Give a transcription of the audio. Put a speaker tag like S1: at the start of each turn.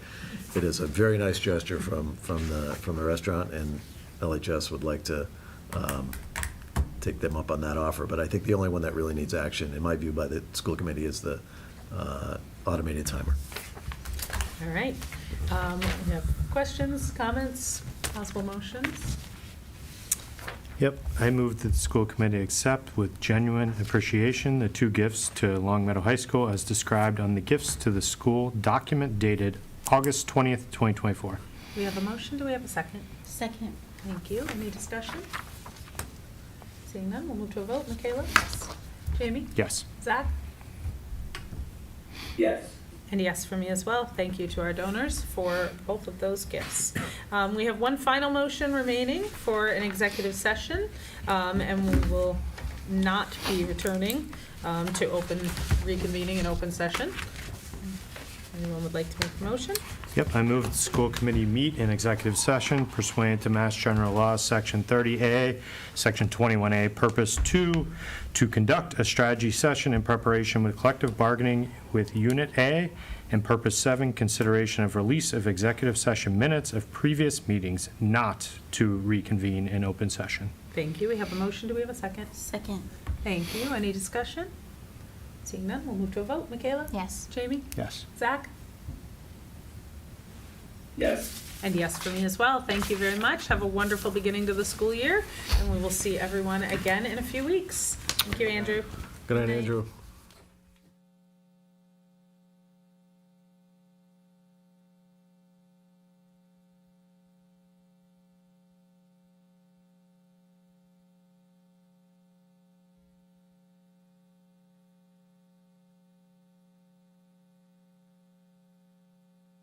S1: it is a very nice gesture from, from the, from the restaurant, and LHS would like to um, take them up on that offer. But I think the only one that really needs action, in my view, by the school committee, is the uh, automated timer.
S2: All right. Um, We have questions, comments, possible motions?
S3: Yep, I move that the school committee accept with genuine appreciation the two gifts to Long Meadow High School as described on the gifts to the school document dated August 20th, 2024.
S2: We have a motion, do we have a second?
S4: Second.
S2: Thank you. Any discussion? Seeing none, we'll move to a vote. Michaela? Yes. Jamie?
S3: Yes.
S2: Zach?
S5: yes,
S2: And yes for me as well. Thank you to our donors for both of those gifts. Um, We have one final motion remaining for an executive session, um, and we will not be returning um, to open, reconvening an open session. Anyone would like to make a motion?
S3: Yep, I move that the school committee meet in executive session pursuant to Mass General Law, Section 30A, Section 21A, Purpose 2, to conduct a strategy session in preparation with collective bargaining with Unit A, and Purpose 7, consideration of release of executive session minutes of previous meetings, not to reconvene in open session.
S2: Thank you. We have a motion. Do we have a second?
S4: Second.
S2: Thank you. Any discussion? Seeing none, we'll move to a vote. Michaela?
S4: Yes.
S2: Jamie?
S3: Yes.
S2: Zach?
S5: yes.
S2: And yes for me as well. Thank you very much. Have a wonderful beginning to the school year, and we will see everyone again in a few weeks. Thank you, Andrew.
S1: Good
S2: Good
S1: night,
S2: night.
S1: Andrew.